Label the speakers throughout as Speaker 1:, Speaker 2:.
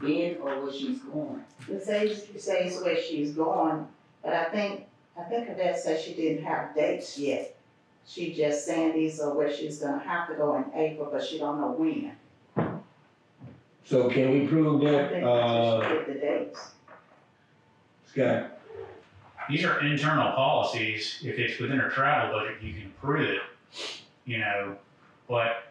Speaker 1: stay or where she's going.
Speaker 2: It says, it says where she's going, but I think, I think Yvette said she didn't have dates yet. She just saying these are where she's gonna have to go in April, but she don't know when.
Speaker 3: So can we prove
Speaker 2: I
Speaker 3: that,
Speaker 2: think
Speaker 3: uh,
Speaker 2: she should get the dates.
Speaker 3: Scott,
Speaker 4: These are internal policies. If it's within her travel budget, you can approve it, you know, but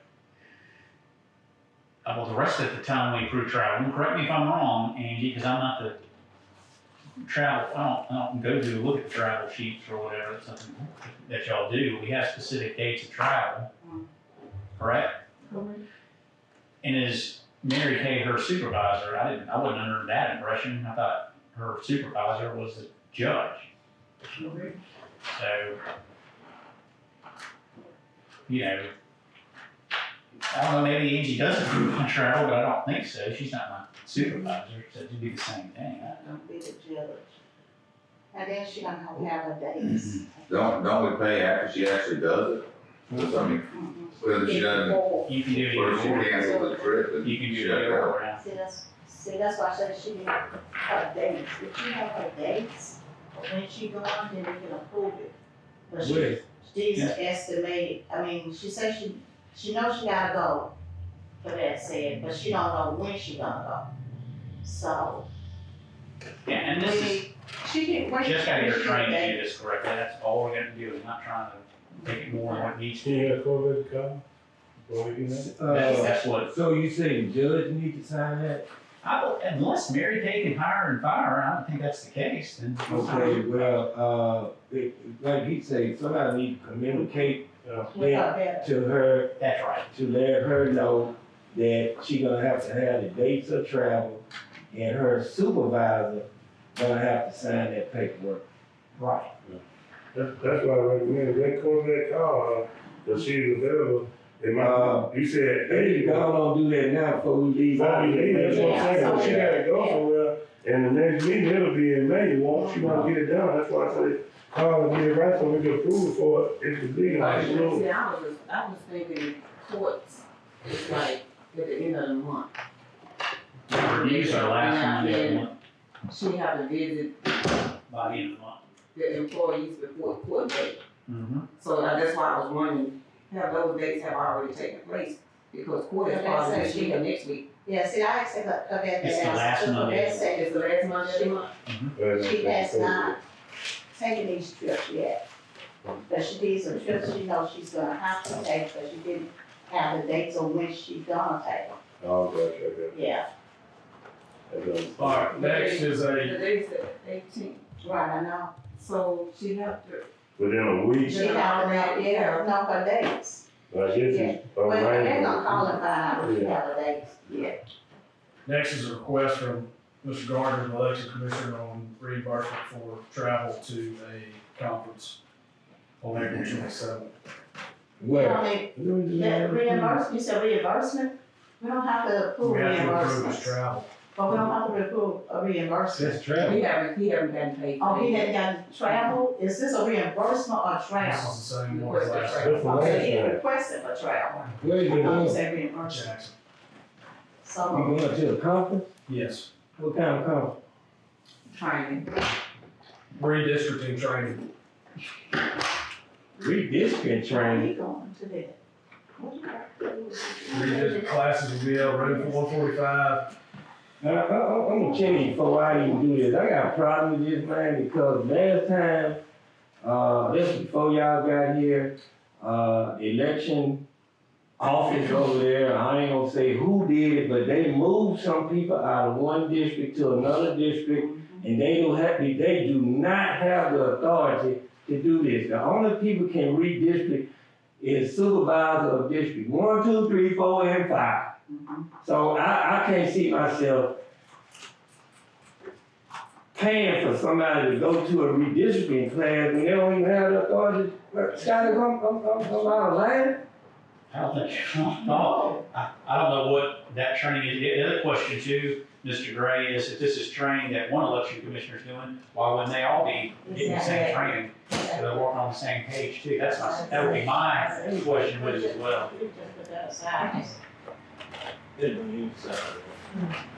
Speaker 4: uh, well, the rest of the time we approve travel, and correct me if I'm wrong, Angie, because I'm not the travel, I don't, I don't go to look at travel sheets or whatever, it's something that y'all do. We have specific dates of travel, correct? And as Mary Kay, her supervisor, I didn't, I wasn't under that impression. I thought her supervisor was the judge. So, you know, I don't know, maybe Angie does approve on travel, but I don't think so. She's not my supervisor, so it'd be the same thing. I-
Speaker 2: Don't be the judge. And then she gonna have to have her dates.
Speaker 5: Don't, don't we pay after she actually does it? 'Cause, I mean,
Speaker 2: Mhm.
Speaker 5: whether she doesn't,
Speaker 2: Before.
Speaker 4: You can do it
Speaker 5: whether she
Speaker 4: either or.
Speaker 5: cancels the trip and
Speaker 4: You can do
Speaker 5: shut
Speaker 4: it either
Speaker 5: down.
Speaker 4: or. yeah.
Speaker 2: See, that's, see, that's why I said she need her dates. If she have her dates, when she go on, then they can approve it. But she-
Speaker 3: Woody,
Speaker 2: She's
Speaker 4: Yeah.
Speaker 2: estimated, I mean, she says she, she knows she gotta go, for that said, but she don't know when she gonna go. So,
Speaker 4: Yeah, and
Speaker 2: we
Speaker 4: this is,
Speaker 2: need, she can wait.
Speaker 4: just gotta get her
Speaker 2: she
Speaker 4: trained to
Speaker 2: can
Speaker 4: do this correctly. That's all we're gonna do, is not trying to make it more than what needs to.
Speaker 6: She
Speaker 4: be.
Speaker 6: had COVID come, before we do that.
Speaker 4: That's,
Speaker 3: uh,
Speaker 4: that's what,
Speaker 3: so you say judge need to sign that?
Speaker 4: I, don't- unless Mary Kay can hire and fire, I don't think that's the case, then.
Speaker 3: Okay, well, uh, it, like he say, somebody need to communicate
Speaker 6: Uh,
Speaker 2: make her
Speaker 3: that
Speaker 2: better.
Speaker 3: to her,
Speaker 4: That's right.
Speaker 3: to let her know that she gonna have to have the dates of travel, and her supervisor gonna have to sign that paperwork.
Speaker 4: Right.
Speaker 6: That's, that's why I recommend, if they call that car, uh, if she's available, it
Speaker 3: Uh,
Speaker 6: might, you said, hey,
Speaker 3: Hey, y'all don't do that now before we leave.
Speaker 6: before we leave, that's what I'm saying, 'cause she gotta go
Speaker 2: Yeah.
Speaker 6: somewhere, and the next meeting, it'll be in May, you want, she wanna get it done, that's why I said, call and get it right, so we can approve it for it, it could be, like, you know.
Speaker 7: See, I was, I was thinking courts, it's like at the end of the month.
Speaker 4: Reviews are last Monday of the month.
Speaker 7: She had to visit
Speaker 4: by the end of the month.
Speaker 7: the employees before court date.
Speaker 4: Mm-hmm.
Speaker 7: So now that's why I was wondering, have those dates have already taken place? Because court is
Speaker 2: Okay,
Speaker 7: probably
Speaker 2: so
Speaker 7: this
Speaker 2: she-
Speaker 7: week or next week.
Speaker 2: Yeah, see, I asked her, her that,
Speaker 4: It's the last
Speaker 2: that, her
Speaker 4: Monday.
Speaker 2: that said,
Speaker 7: It's the last Monday of the month.
Speaker 2: she has not taken these trips yet. But she did some trips she knows she's gonna have to take, but she didn't have the dates on when she gonna take them,
Speaker 6: Oh, gosh, okay,
Speaker 2: yeah.
Speaker 6: that's,
Speaker 8: All right, next is a,
Speaker 7: Today's the eighteenth,
Speaker 2: Right, I know.
Speaker 7: so she have to.
Speaker 6: within a week,
Speaker 2: She don't know, yeah, know her dates.
Speaker 6: I guess
Speaker 2: Yeah.
Speaker 6: it's.
Speaker 2: Well, they're gonna call it five
Speaker 6: Yeah.
Speaker 2: holidays, yeah.
Speaker 8: next is a request from Mr. Gardner, the election commissioner, on reimbursement for travel to a conference on April twenty-seventh.
Speaker 3: Well,
Speaker 2: Only, that reimbursement, you said reimbursement, we don't have to approve
Speaker 8: We have to approve his
Speaker 2: reimbursements,
Speaker 8: travel.
Speaker 2: but we don't have to approve a reimbursement.
Speaker 3: That's travel.
Speaker 7: He haven't, he haven't gotten paid. for
Speaker 2: Oh, he
Speaker 7: that.
Speaker 2: had gotten travel, is this a reimbursement or
Speaker 8: This
Speaker 2: travel?
Speaker 8: is the same one as last
Speaker 6: That's the
Speaker 8: time.
Speaker 2: Oh, so he
Speaker 6: last
Speaker 2: requested for travel,
Speaker 3: Where you
Speaker 2: I don't
Speaker 3: going?
Speaker 2: say reimbursement,
Speaker 8: Jackson.
Speaker 3: You
Speaker 2: so,
Speaker 3: going to a conference?
Speaker 8: Yes,
Speaker 3: What kind of conference?
Speaker 7: Training.
Speaker 8: redistricting training.
Speaker 3: Redistricting
Speaker 2: where
Speaker 3: training.
Speaker 2: he going to that? What you got to do?
Speaker 8: Redistrict classes will be out room one forty-five.
Speaker 3: I, I, I- I'm gonna tell you before I even do this, I got a problem with this man because last time, uh, this before y'all got here, uh, election office over there, I ain't gonna say who did it, but they moved some people out of one district to another district and they don't have, they do not have the authority to do this. The only people can redistrict is supervisor of district one, two, three, four, and five. So I, I can't see myself paying for somebody to go to a redistricting class when they don't even have the authority. Scotty, come, come, come, come out of line.
Speaker 4: I don't think, no, Oh. I, I don't know what that training is. The other question too, Mr. Gray, is if this is training that one election commissioner's doing, why wouldn't they all be getting the same training? So they're working on the same page too. That's my, that would be my question with it as well.
Speaker 2: We just put that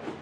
Speaker 2: aside.